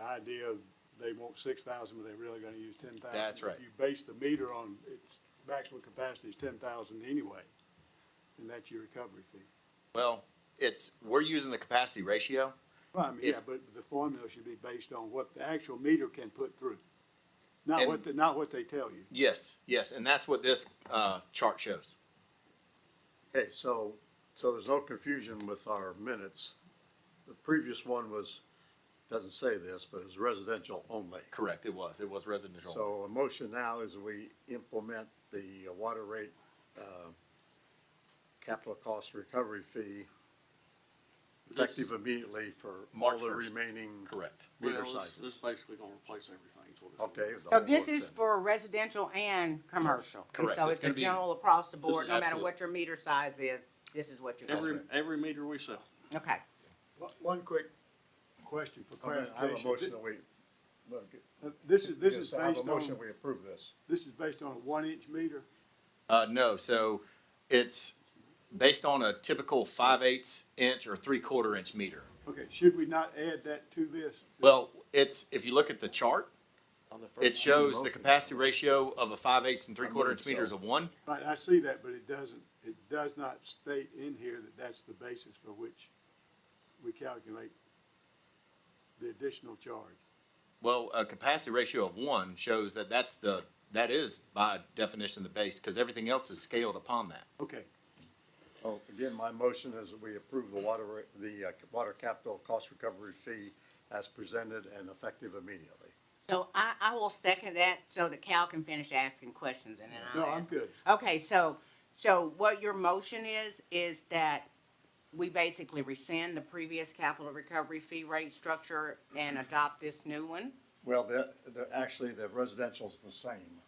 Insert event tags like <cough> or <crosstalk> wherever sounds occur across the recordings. idea of they want six thousand, but they're really gonna use ten thousand. That's right. If you base the meter on, its maximum capacity is ten thousand anyway, and that's your recovery fee. Well, it's, we're using the capacity ratio. Well, I mean, If- yeah, but the formula should be based on what the actual meter can put through, not what, And- the- not what they tell you. Yes, yes, and that's what this, uh, chart shows. Okay, so, so there's no confusion with our minutes. The previous one was, doesn't say this, but it's residential only. Correct, it was, it was residential. So a motion now is we implement the water rate, uh, capital cost recovery fee effective immediately for all March the 1st. remaining Correct. meter Well, this, sizes. this basically gonna replace everything, is what it's. Okay. the So whole this works is then. for residential and commercial. And Correct. So It's it's a gonna be- general across the This board, is no matter absolute. what your meter size is, this is what you're gonna Every, do. every meter we sell. Okay. One- One quick question for I mean, I have a motion clarification. uh, that we, look, This is, this is yes, I have a based motion on, we approve this. this is based on a one-inch meter? Uh, no, so it's based on a typical five eighths inch or three quarter inch meter. Okay, should we not add that to this? Well, it's, if you look at the chart, on the it first- shows the motion. capacity ratio of a five eighths and three quarter believe inch meter so. is a one. Right, I see that, but it doesn't, it does not state in here that that's the basis for which we calculate the additional charge. Well, a capacity ratio of one shows that that's the, that is by definition the base, because everything else is scaled upon that. Okay, Oh, again, my motion is that we approve the water, ra- the uh, water capital cost recovery fee as presented and effective immediately. So I, I will second that so that Cal can finish asking questions and then no, I'll I'm ask. good. Okay, so, so what your motion is, is that we basically rescind the previous capital recovery fee rate structure and adopt this new one? Well, the, the, actually, the residential's the same.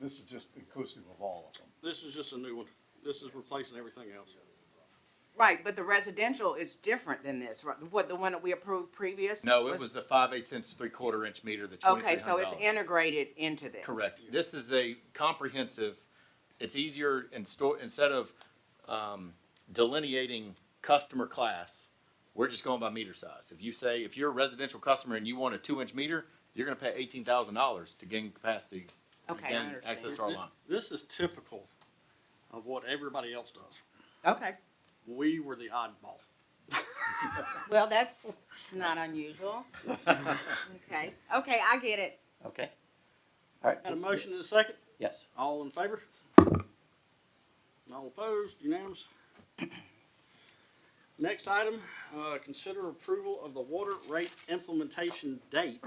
This is just inclusive of all of them. This is just a new one. This is replacing everything else. Right, but the residential is different than this, right? What, the one that we approved previous? No, it was the five eighths inch, three quarter inch meter, the Okay, twenty-three so hundred it's dollars. integrated into this? Correct. This is a comprehensive, it's easier in store, instead of, um, delineating customer class, we're just going by meter size. If you say, if you're a residential customer and you want a two inch meter, you're gonna pay eighteen thousand dollars to gain capacity. Okay, I gain understand. Access to our line. This is typical of what everybody else does. Okay, We were the oddball. well, that's not unusual. Okay, okay, I get it. Okay. All right. Got a motion in a second? Yes. All in favor? All opposed, unanimous? <clears throat> Next item, uh, consider approval of the water rate implementation date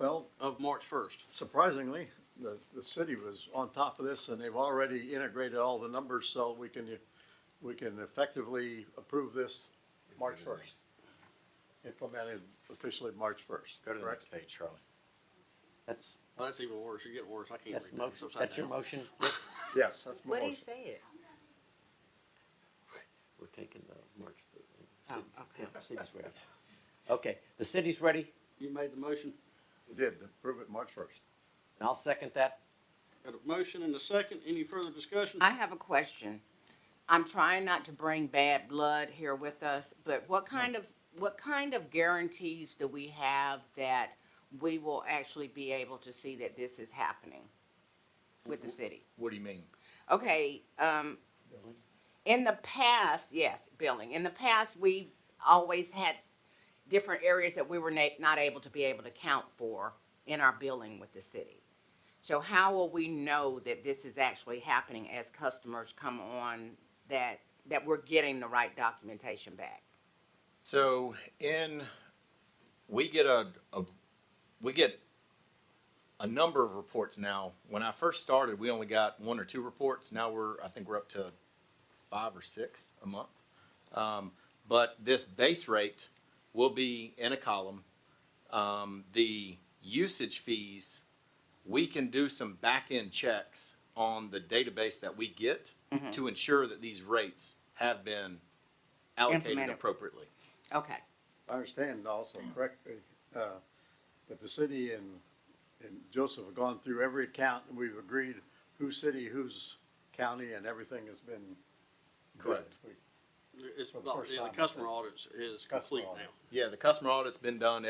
Well, of March first. surprisingly, the, the city was on top of this and they've already integrated all the numbers, so we can, we can effectively approve this March first. Implemented officially March first. Go to the next page, Charlie. That's, Well, that's even worse. You're getting worse. I can't that's, read. It's upside that's your down. motion. Yes, that's my What do you motion. say it? We're taking the March. the Oh, city's- yeah, City's ready. Okay, the city's ready, You made the motion. Did, approve it March first. and I'll second that. Got a motion and a second. Any further discussion? I have a question. I'm trying not to bring bad blood here with us, but what kind of, what kind of guarantees do we have that we will actually be able to see that this is happening with the city? What do you mean? Okay, um, in the past, yes, billing, in the past, we've always had s- different areas that we were na- not able to be able to count for in our billing with the city. So how will we know that this is actually happening as customers come on, that, that we're getting the right documentation back? So in, we get a, a, we get a number of reports now. When I first started, we only got one or two reports. Now we're, I think we're up to five or six a month. Um, but this base rate will be in a column. Um, the usage fees, we can do some back-end checks on the database that we get to ensure that these rates have been allocated Implemented. appropriately. Okay, I understand also correctly, uh, that the city and, and Joseph have gone through every account and we've agreed whose city, whose county, and everything has been. Correct. good. We- It's, For the about- first yeah, time, the I customer think. audits is Customer complete audit. now. Yeah, the customer audit's been done